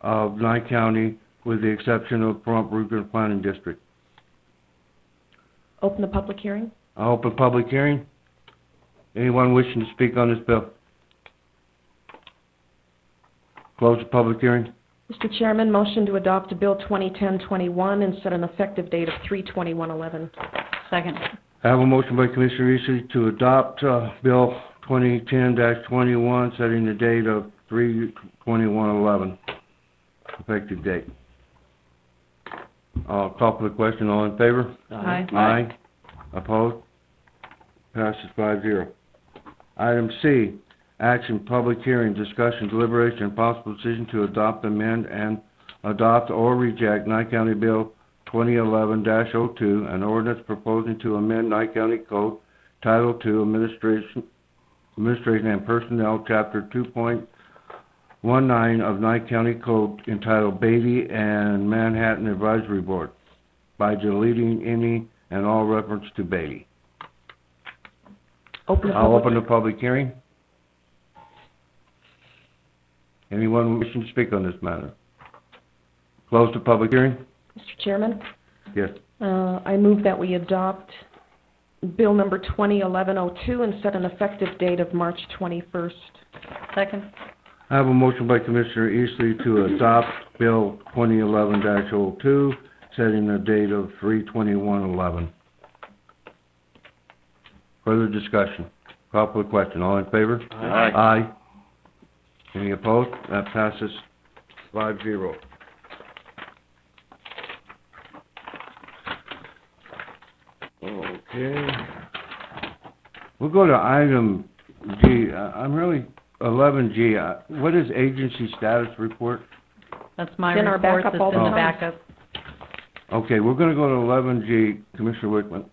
of Nye County, with the exception of Pahrump Regional Planning District. Open the public hearing? I open public hearing. Anyone wishing to speak on this bill? Close the public hearing. Mr. Chairman, motion to adopt Bill 2010-21 and set an effective date of 3/21/11. Second. I have a motion by Commissioner Eastly to adopt uh, Bill 2010-21, setting the date of 3/21/11, effective date. Uh, Call for the question, all in favor? Aye. Aye. Opposed? Passes five zero. Item C, action, public hearing, discussion, deliberation, and possible decision to adopt, amend, and adopt or reject Nye County Bill 2011-02, an ordinance proposing to amend Nye County Code Title II Administration, Administration and Personnel, Chapter 2.19 of Nye County Code entitled Beatty and Manhattan Advisory Board by deleting any and all reference to Beatty. Open the I'll public- open the public hearing. Anyone wishing to speak on this matter? Close the public hearing? Mr. Chairman, Yes. uh, I move that we adopt Bill number 2011-02 and set an effective date of March 21st. Second. I have a motion by Commissioner Eastley to adopt Bill 2011-02, setting the date of 3/21/11. Further discussion? Call for the question. All in favor? Aye. Aye. Any opposed? That passes five zero. Okay. We'll go to item G. I- I'm really, eleven G. Uh, What is agency status report? That's my It's in our report. backup all It's in the the time. backup. Okay, we're gonna go to eleven G, Commissioner Wickman.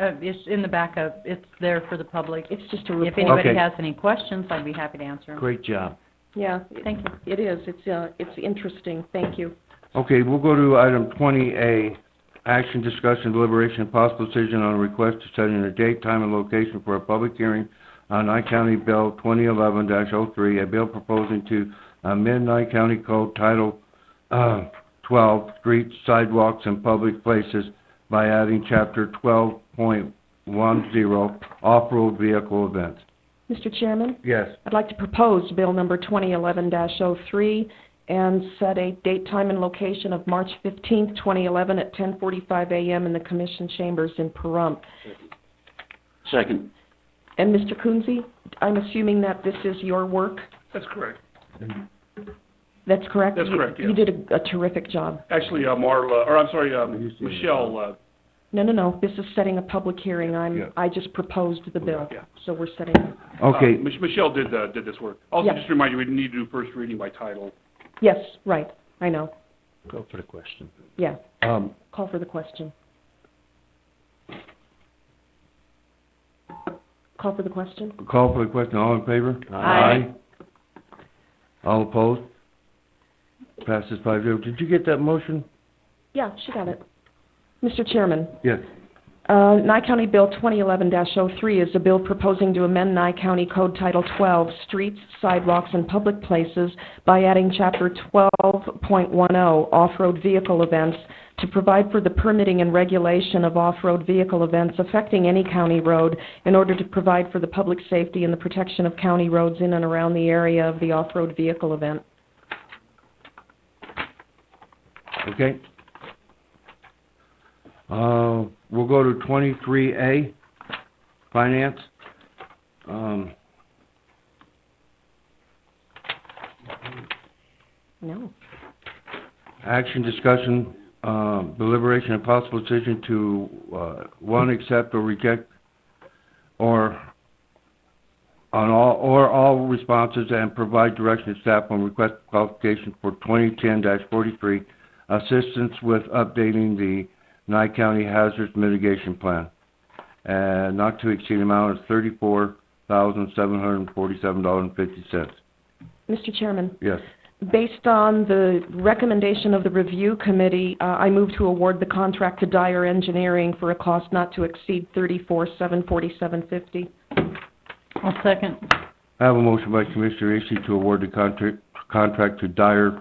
Uh, it's in the backup. It's there for the public. It's just a If report. anybody Okay. has any questions, I'd be happy to answer them. Great job. Yeah. it- Thank you. It is. It's, uh, it's interesting. Thank you. Okay, we'll go to item twenty A, action, discussion, deliberation, and possible decision on a request to set in a date, time, and location for a public hearing on Nye County Bill twenty eleven 3 a bill proposing to amend Nye County Code Title, uh, twelve, streets, sidewalks, and public places by adding chapter twelve point one zero, off-road vehicle events. Mr. Chairman, Yes. I'd like to propose Bill number 2011-03 and set a date, time, and location of March 15th, 2011 at 10:45 a.m. in the Commission Chambers in Pahrump. Second. And Mr. Kunze, I'm assuming that this is your work? That's correct. That's correct? That's You- correct, You yes. did a- a terrific job. Actually, uh, Marla, or I'm sorry, Have you um, seen it? Michelle, uh, No, no, no, this is setting a public hearing. Yeah. I'm, I just proposed the bill. Yeah. So we're setting, Okay, uh, Mich- Michelle did, uh, did this work. Also, Yeah. just to remind you, we need to do first reading by title. yes, right, I know. Go for the question. Yeah, Um, call for the question. Call for the question? Call for the question, all in favor? Aye. All opposed? Passes five zero. Did you get that motion? Yeah, she got it. Mr. Chairman, Yes. uh, Nye County Bill 2011-03 is a bill proposing to amend Nye County Code Title 12, Streets, Sidewalks, and Public Places by adding Chapter 12.10, oh, Off-Road Vehicle Events, to provide for the permitting and regulation of off-road vehicle events affecting any county road in order to provide for the public safety and the protection of county roads in and around the area of the off-road vehicle event. Okay. Uh, we'll go to twenty-three A, finance. Um, No. action, discussion, um, deliberation, and possible decision to, uh, one, accept or reject, or on all, or all responses and provide direction to staff on request qualification for 2010-43, assistance with updating the Nye County Hazards Mitigation Plan, and not to exceed amount of $34,747.50. Mr. Chairman. Yes. Based on the recommendation of the review committee, uh, I move to award the contract to Dyer Engineering for a cost not to exceed thirty-four, seven forty-seven fifty. I'll second. I have a motion by Commissioner Eastly to award the contract, contract to Dyer